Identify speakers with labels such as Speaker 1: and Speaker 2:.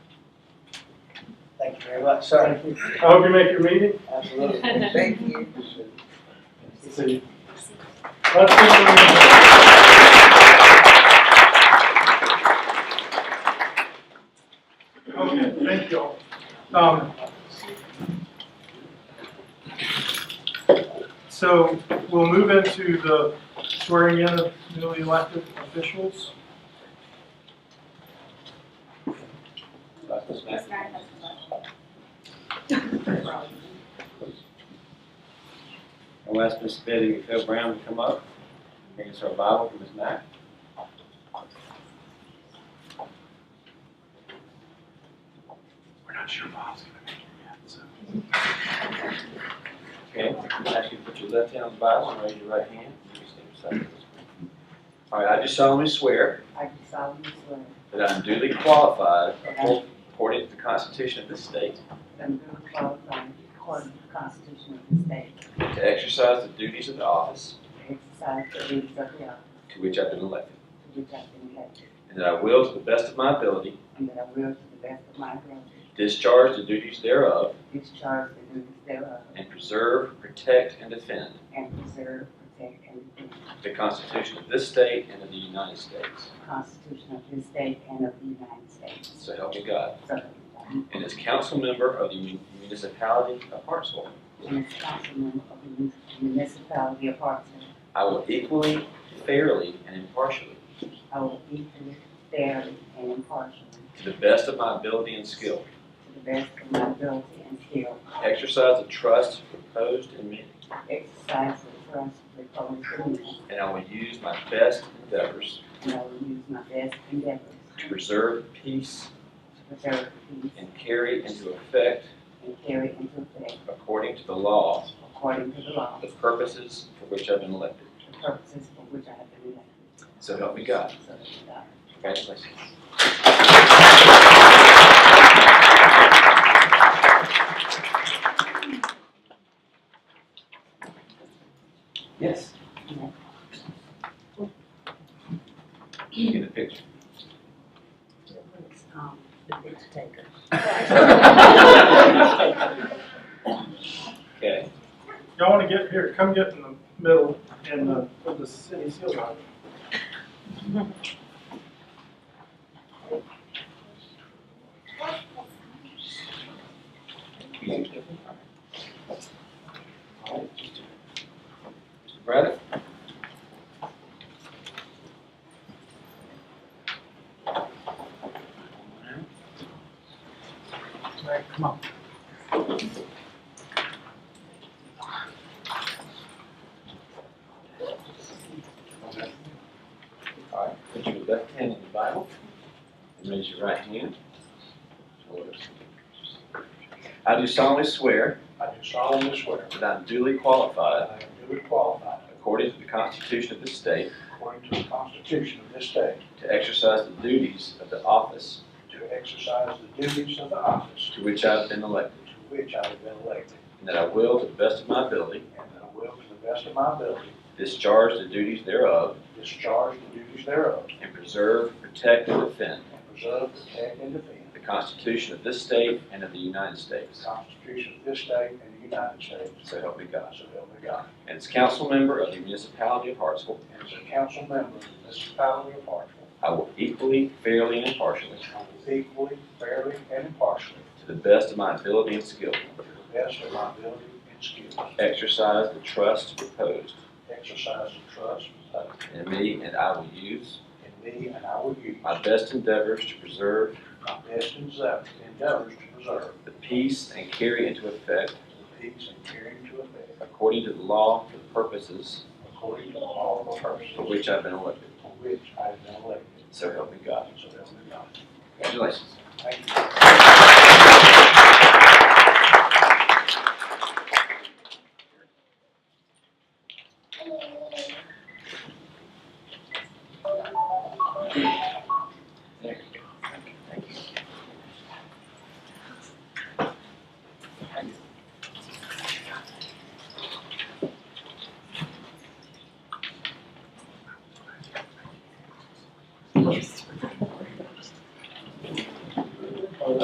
Speaker 1: Thank you very much, sir.
Speaker 2: I hope you make your meeting.
Speaker 1: Absolutely.
Speaker 3: Thank you.
Speaker 2: Let's see. Let's see. Okay, thank you all. Um, So we'll move into the swearing in of newly elected officials.
Speaker 4: I'll ask Ms. Betty and Phil Brown to come up. Bring us our Bible from his Mac. We're not sure Bob's gonna make it yet, so. Okay, I'm gonna ask you to put your left hand on the Bible and raise your right hand. You can stand beside us. All right, I do solemnly swear
Speaker 3: I do solemnly swear
Speaker 4: that I am duly qualified
Speaker 3: that I am
Speaker 4: according to the Constitution of this state
Speaker 3: duly qualified according to the Constitution of the state
Speaker 4: to exercise the duties of the office
Speaker 3: to exercise the duties of the office
Speaker 4: to which I've been elected,
Speaker 3: to which I've been elected,
Speaker 4: and that I will, to the best of my ability,
Speaker 3: and that I will, to the best of my ability,
Speaker 4: Discharge the duties thereof
Speaker 3: discharge the duties thereof,
Speaker 4: and preserve, protect, and defend
Speaker 3: and preserve, protect, and defend
Speaker 4: the Constitution of this state and of the United States.
Speaker 3: the Constitution of this state and of the United States.
Speaker 4: So help me God.
Speaker 3: So help me God.
Speaker 4: And as council member of the mun- municipality of Hartsville,
Speaker 3: And as councilman of the municipality of Hartsville,
Speaker 4: I will equally, fairly, and impartially,
Speaker 3: I will equally, fairly, and impartially,
Speaker 4: to the best of my ability and skill,
Speaker 3: to the best of my ability and skill,
Speaker 4: exercise the trust reposed in me,
Speaker 3: exercise the trust reposed in me,
Speaker 4: and I will use my best endeavors
Speaker 3: and I will use my best endeavors
Speaker 4: to preserve peace
Speaker 3: to preserve peace
Speaker 4: and carry into effect,
Speaker 3: and carry into effect,
Speaker 4: according to the law,
Speaker 3: according to the law,
Speaker 4: the purposes for which I've been elected.
Speaker 3: the purposes for which I have been elected.
Speaker 4: So help me God.
Speaker 3: So uh, help me God.
Speaker 4: Congratulations. Yes. Get a picture.
Speaker 3: Um, the picture taker.
Speaker 4: Okay,
Speaker 2: Y'all want to get here, come get in the middle and uh, put the city seal on.
Speaker 4: Mr. Braddock? All right, put your left hand in the Bible and raise your right hand. I do solemnly swear
Speaker 5: I do solemnly swear
Speaker 4: that I am duly qualified,
Speaker 5: that I am duly qualified,
Speaker 4: according to the Constitution of this state,
Speaker 5: according to the Constitution of this state,
Speaker 4: to exercise the duties of the office
Speaker 5: to exercise the duties of the office
Speaker 4: to which I have been elected,
Speaker 5: to which I have been elected,
Speaker 4: and that I will, to the best of my ability,
Speaker 5: and that I will, to the best of my ability,
Speaker 4: discharge the duties thereof,
Speaker 5: discharge the duties thereof,
Speaker 4: and preserve, protect, and defend
Speaker 5: and preserve, protect, and defend
Speaker 4: the Constitution of this state and of the United
Speaker 5: the
Speaker 4: States.
Speaker 5: Constitution of this state and the United States.
Speaker 4: So help me God.
Speaker 5: So help me God.
Speaker 4: And as council member of the municipality of Hartsville,
Speaker 5: And as a council member of the municipality of Hartsville,
Speaker 4: I will equally, fairly, and impartially,
Speaker 5: I will equally, fairly, and impartially,
Speaker 4: to the best of my ability and skill,
Speaker 5: to the best of my ability and skill,
Speaker 4: exercise the trust reposed
Speaker 5: exercise the trust reposed
Speaker 4: in me, and I will use
Speaker 5: in me, and I will use
Speaker 4: my best endeavors to preserve
Speaker 5: My best endeavor- endeavors to preserve
Speaker 4: the peace and carry into effect,
Speaker 5: the peace and carry into effect,
Speaker 4: according to the law, for the purposes
Speaker 5: according to the law of the purposes
Speaker 4: for which I've been elected.
Speaker 5: for which I have been elected.
Speaker 4: So help me God.
Speaker 5: So help me God.
Speaker 4: Congratulations.
Speaker 5: Thank you.